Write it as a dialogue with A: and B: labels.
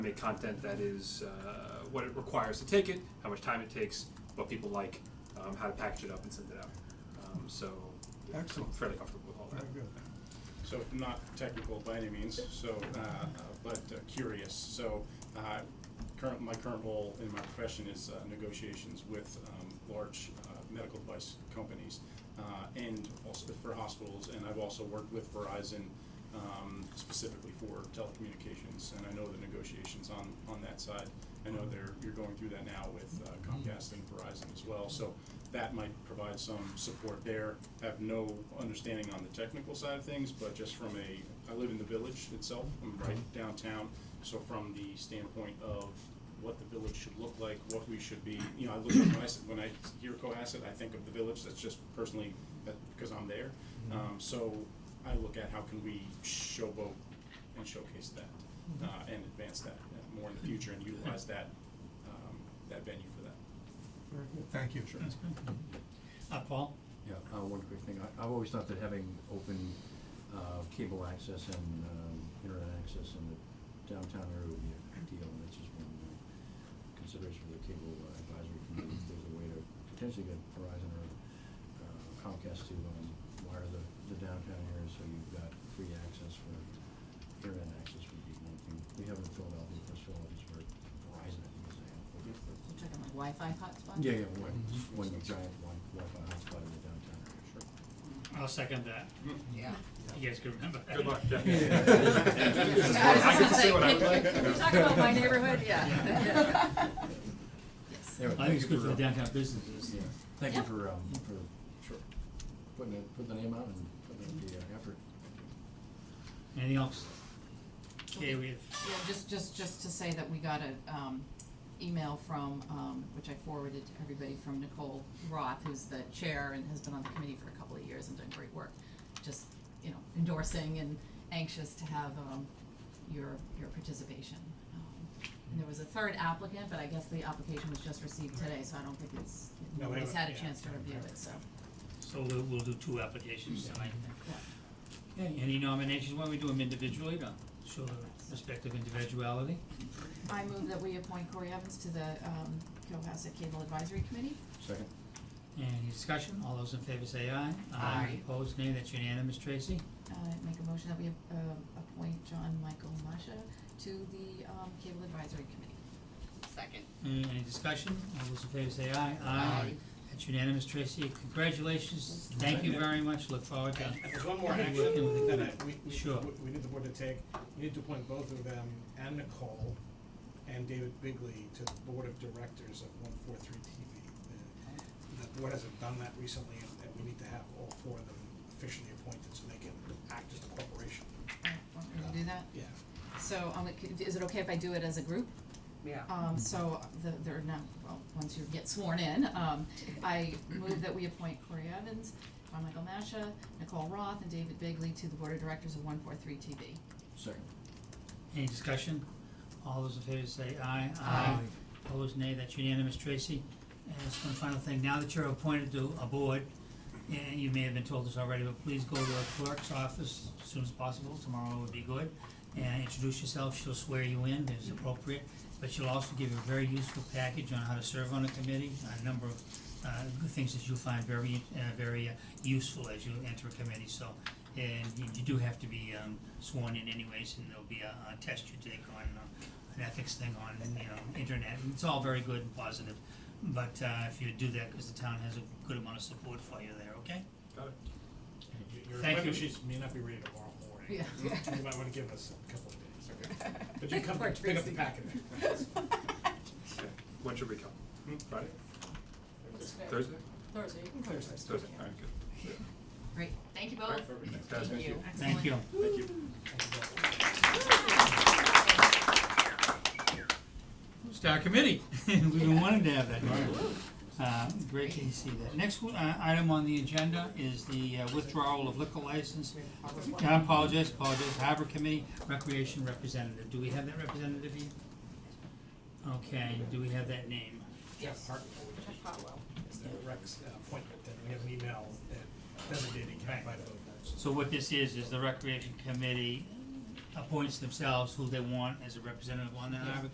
A: create content that is uh, what it requires to take it, how much time it takes, what people like, um, how to package it up and send it out. Um, so yeah, I'm
B: Excellent.
A: fairly comfortable with all that.
B: Very good.
C: So not technical by any means, so, uh, uh, but uh, curious. So, uh, current, my current role in my profession is uh, negotiations with um, large uh, medical device companies uh, and also for hospitals. And I've also worked with Verizon um, specifically for telecommunications. And I know the negotiations on, on that side. I know they're, you're going through that now with uh, Comcast and Verizon as well. So that might provide some support there. Have no understanding on the technical side of things, but just from a, I live in the village itself, I'm right downtown. So from the standpoint of what the village should look like, what we should be, you know, I look, when I, s- when I hear Cohasset, I think of the village, that's just personally, that, because I'm there. Um, so I look at how can we showboat and showcase
D: Mm-hmm.
C: that, uh, and advance that uh, more in the future and utilize that, um, that venue for that.
B: Very good. Thank you. Sure.
E: Uh, Paul?
F: Yeah, uh, one quick thing. I, I've always thought that having open, uh, cable access and, um, internet access in the downtown area would be a good deal, and that's just one uh, consideration for the cable uh, advisory committee. If there's a way to potentially get Verizon or uh, Comcast to, um, wire the, the downtown area, so you've got free access for, internet access would be one thing. We have in Philadelphia, because Philadelphia's where Verizon, I think, is a,
G: You're talking like Wi-Fi hotspots?
F: yeah, yeah, one, one giant one, Wi-Fi hotspot in the downtown area. Sure.
E: I'll second that.
G: Yeah.
E: You guys can remember that.
A: Good luck. Jack. I
G: Yeah,
A: get
G: I was
A: to
G: just
A: say what I
G: gonna
A: like.
G: say, can you talk about my neighborhood? Yeah. Yes.
F: Anyway,
E: I
F: thank
E: think it's
F: you
E: good for the downtown businesses.
F: Yeah, thank you
G: Yeah.
F: for, um, for sure, putting it, putting the name out and putting in the uh, effort.
E: Anything else? Okay, we have,
G: Yeah, just, just, just to say that we got a, um, email from, um, which I forwarded to everybody from Nicole Roth, who's the chair and has been on the committee for a couple of years and done great work. Just, you know, endorsing and anxious to have, um, your, your participation. Um, And there was a third applicant, but I guess the application was just received today, so I don't think it's,
E: No, we
G: nobody's had a
E: haven't- yeah,
G: chance to
E: haven't
G: review
E: heard.
G: it, so.
E: so we'll, we'll do two applications tonight.
G: yeah.
E: Okay, any nominations? Why don't we do them individually to show the respective individuality?
G: I move that we appoint Corey Evans to the, um, Cohasset Cable Advisory Committee.
F: Second?
E: Any discussion? All those in favor say aye.
G: Aye.
E: Opposed, nay. That's unanimous, Tracy.
G: Uh, make a motion that we, uh, appoint John Michael Masha to the, um, Cable Advisory Committee.
H: Second.
E: Any, any discussion? All those in favor say aye.
G: Aye.
E: That's unanimous, Tracy. Congratulations. Thank you very much. Look forward to
D: There's one more
E: Yeah,
D: action
E: we can-
D: that I, we, we,
E: Sure.
D: we need the board to take, we need to appoint both of them and Nicole and David Bigley to the board of directors of one four three TV. The- The board hasn't done that recently and, and we need to have all four of them officially appointed so they can act as a corporation.
G: Uh, Want me to do that?
D: Yeah.
G: So, um, is it okay if I do it as a group?
H: Yeah.
G: Um, so, the, they're not, well, once you get sworn in, um, I move that we appoint Corey Evans, John Michael Masha, Nicole Roth, and David Bigley to the Board of Directors of one four three TV.
F: Second.
E: Any discussion? All those in favor say aye.
G: Aye.
E: Opposed, nay, that's unanimous, Tracy. And just one final thing, now that you're appointed to a board, and you may have been told this already, but please go to the clerk's office as soon as possible, tomorrow would be good. And introduce yourself, she'll swear you in, if it's appropriate, but she'll also give you a very useful package on how to serve on a committee, a number of, uh, things that you'll find very, uh, very uh, useful as you enter a committee, so. And you- you do have to be, um, sworn in anyways, and there'll be a, a test you take on, uh, an ethics thing on, you know, internet, and it's all very good and positive. But uh, if you do that, because the town has a good amount of support for you there, okay?
A: Got it.
D: Your
E: Thank
D: appointment
E: you.
D: sheets may not be ready tomorrow morning.
G: Yeah.
D: You might wanna give us a couple of days, okay? But you come, pick up the packet.
A: Okay. When should we come? Friday? Hmm? Thursday?
G: Thursday, you can
D: Thursday.
A: Thursday, all right, good.
G: Great, thank you both.
A: All right, perfect. Thanks, guys. Thank you.
E: Thank you.
A: Thank you.
E: Star committee, we've been wanting to have that. Uh, Great to see that. Next one, uh, item on the agenda is the uh, withdrawal of liquor license. I apologize, apologize, harbor committee, recreation representative. Do we have that representative here? Okay, do we have that name?
D: Jeff Hartnell. is the Rex uh, appointment, and we have an email that designating him by the.
E: So what this is, is the recreation committee appoints themselves who they want as a representative on that
G: Yeah.
E: arbitrary